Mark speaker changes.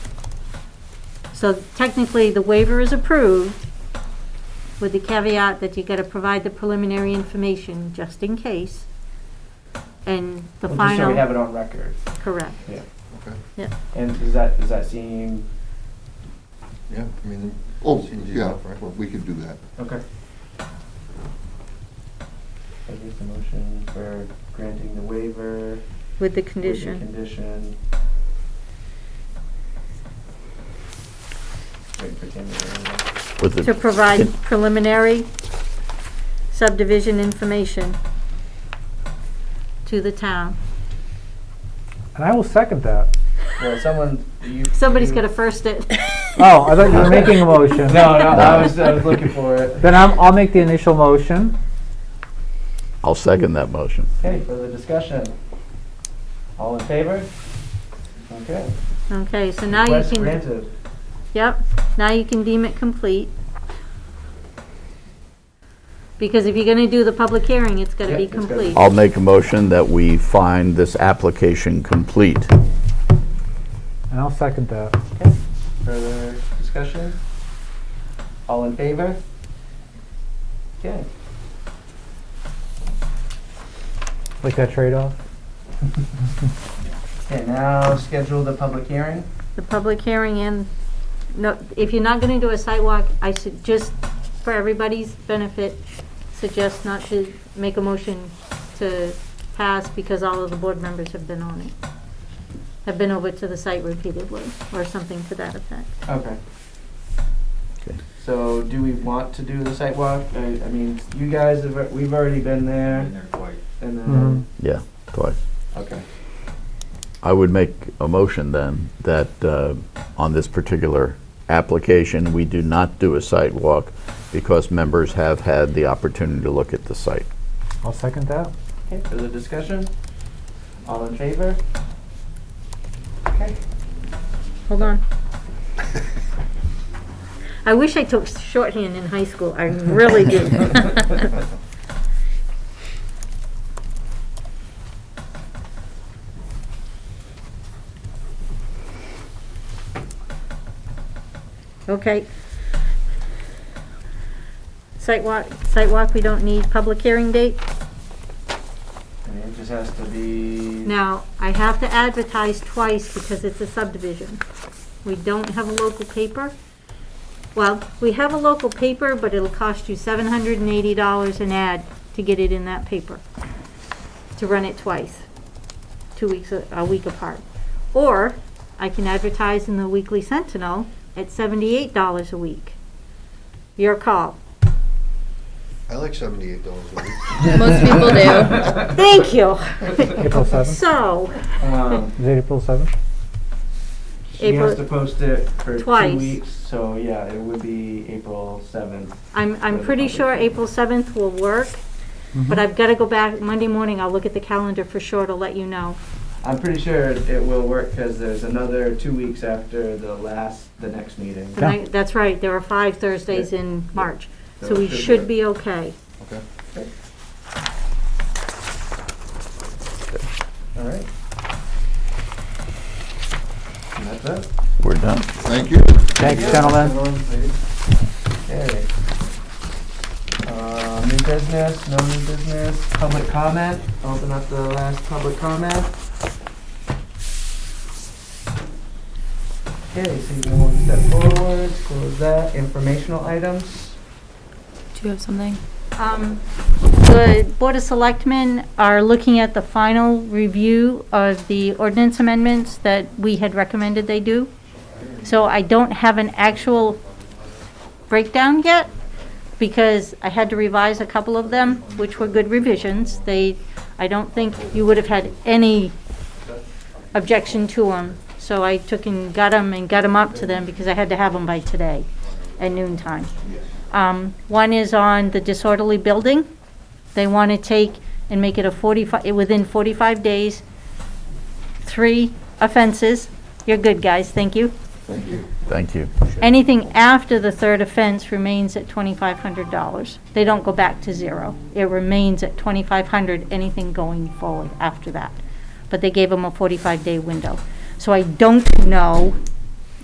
Speaker 1: So technically, the waiver is approved with the caveat that you gotta provide the preliminary information just in case. And the
Speaker 2: Well, Just so we have
Speaker 1: final,
Speaker 2: it on record.
Speaker 1: correct.
Speaker 3: Okay,
Speaker 2: And does that, does that seem,
Speaker 3: yeah, I mean,
Speaker 4: Oh,
Speaker 3: Seems
Speaker 4: yeah,
Speaker 3: enough, right?
Speaker 4: well, we could do that.
Speaker 2: okay. I guess the motion for granting the waiver. with
Speaker 1: With the
Speaker 2: the
Speaker 1: condition.
Speaker 2: Condition. Wait for Tammy to remember.
Speaker 5: With the-
Speaker 1: To provide preliminary subdivision information to the town.
Speaker 6: And I will second that.
Speaker 2: Well, someone, you.
Speaker 1: Somebody's
Speaker 2: you-
Speaker 1: gonna first it.
Speaker 6: Oh, I thought you were making a motion.
Speaker 2: No, no, I was, I was looking for it.
Speaker 6: Then I'm, I'll make the initial motion.
Speaker 5: I'll second that motion.
Speaker 2: Okay, further discussion. All in favor? Okay.
Speaker 1: Okay, so now you
Speaker 2: Request
Speaker 1: can,
Speaker 2: granted.
Speaker 1: yep, now you can deem it complete. Because if you're gonna do the public hearing, it's gotta
Speaker 2: Yeah,
Speaker 1: be
Speaker 2: it's gotta be-
Speaker 1: complete.
Speaker 5: I'll make a motion that we find this application complete.
Speaker 6: And I'll second that.
Speaker 2: Further discussion? All in favor? Okay.
Speaker 6: Like that trade-off.
Speaker 2: Okay, now schedule the public hearing.
Speaker 1: The public hearing and, no, if you're not gonna do a sidewalk, I should just, for everybody's benefit, suggest not to make a motion to pass because all of the board members have been on it. Have been over to the site repeatedly, or something to that effect.
Speaker 2: Okay.
Speaker 5: Okay.
Speaker 2: So do we want to do the site walk? I, I mean, you guys have, we've already been there
Speaker 3: Been there quite.
Speaker 2: and
Speaker 6: Mm-hmm.
Speaker 2: then,
Speaker 5: Yeah, twice.
Speaker 2: okay.
Speaker 5: I would make a motion then that uh, on this particular application, we do not do a site walk because members have had the opportunity to look at the site.
Speaker 6: I'll second that.
Speaker 2: Okay, further discussion? All in favor? Okay.
Speaker 1: Hold on. I wish I took shorthand in high school, I really do. Okay. Site walk, site walk, we don't need public hearing date.
Speaker 2: And it just has to be.
Speaker 1: Now, I have to advertise twice because it's a subdivision. We don't have a local paper. Well, we have a local paper, but it'll cost you seven hundred and eighty dollars an ad to get it in that paper, to run it twice, two weeks, a a week apart. Or I can advertise in the Weekly Sentinel at seventy-eight dollars a week. Your call.
Speaker 3: I like seventy-eight dollars a week.
Speaker 7: Most people do.
Speaker 1: Thank you.
Speaker 6: April seventh.
Speaker 1: So,
Speaker 2: Um,
Speaker 6: Is it April seventh?
Speaker 2: She
Speaker 1: April-
Speaker 2: has to post it for two
Speaker 1: Twice.
Speaker 2: weeks, so yeah, it would be April seventh.
Speaker 1: I'm, I'm pretty sure April 7th will work, but I've got to go back, Monday morning, I'll look at the calendar for sure to let you know.
Speaker 2: I'm pretty sure it it will work because there's another two weeks after the last, the next meeting.
Speaker 1: And I- That's right, there are five Thursdays
Speaker 2: Yeah.
Speaker 1: in March, so
Speaker 2: So
Speaker 1: we
Speaker 2: it should
Speaker 1: should
Speaker 2: work.
Speaker 1: be okay.
Speaker 3: Okay.
Speaker 2: All right. And that's it.
Speaker 5: We're done.
Speaker 4: Thank you.
Speaker 6: Thanks, gentlemen.
Speaker 2: Okay. Uh, new business, no new business, public comment, open up the last public comment. Okay, so you can one step forward, close that, informational items.
Speaker 7: Do you have something?
Speaker 1: Um, The Board of Selectmen are looking at the final review of the ordinance amendments that we had recommended they do. So I don't have an actual breakdown yet, because I had to revise a couple of them, which were good revisions. They, I don't think you would have had any objection to them. So I took and got them and got them up to them, because I had to have them by today, at noon time. Um, One is on the disorderly building. They want to take and make it a 45, eh, within 45 days, three offenses. You're good, guys, thank you.
Speaker 5: Thank you.
Speaker 1: Anything after the third offense remains at $2,500. They don't go back to zero. It remains at 2,500, anything going forward after that. But they gave them a 45-day window. So I don't know